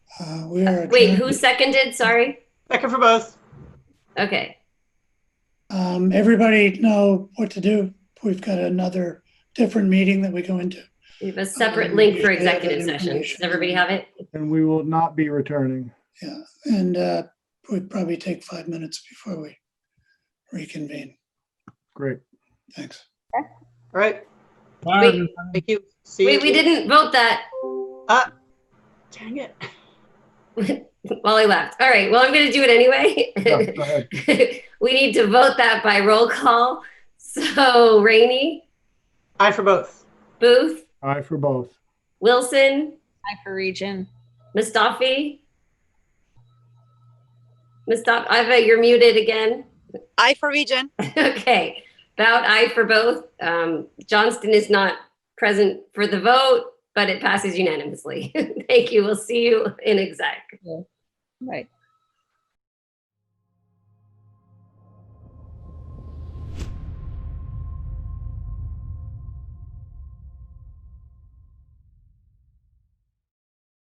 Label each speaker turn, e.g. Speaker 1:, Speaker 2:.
Speaker 1: Uh, we are.
Speaker 2: Wait,
Speaker 1: adjourned.
Speaker 2: who seconded? Sorry.
Speaker 3: Second for both.
Speaker 2: Okay.
Speaker 1: Um, everybody know what to do. We've got another different meeting that we go into.
Speaker 2: We have a separate
Speaker 1: Um,
Speaker 2: link for
Speaker 1: yeah, that
Speaker 2: executive session. Does
Speaker 1: information.
Speaker 2: everybody have it?
Speaker 4: and we will not be returning.
Speaker 1: And, uh, we probably take five minutes before we reconvene.
Speaker 4: Great.
Speaker 1: Thanks.
Speaker 3: All right.
Speaker 5: Bye,
Speaker 2: Wait.
Speaker 5: everyone.
Speaker 3: Thank you. See
Speaker 2: Wait, we
Speaker 3: you.
Speaker 2: didn't vote that
Speaker 3: Dang it.
Speaker 2: while I left. All right. Well, I'm going to do it
Speaker 4: Yeah,
Speaker 2: anyway.
Speaker 4: go ahead.
Speaker 2: we need to vote that by roll call. So Rainey,
Speaker 3: Aye for both.
Speaker 2: Booth,
Speaker 4: Aye for both.
Speaker 2: Wilson,
Speaker 6: Aye for region.
Speaker 2: Mustafi. Mustafa, Iva, you're muted again.
Speaker 6: Aye for region.
Speaker 2: Okay, about aye for both. Um, Johnston is not present for the vote, but it passes unanimously. Thank you. We'll see you in exec.
Speaker 6: Right.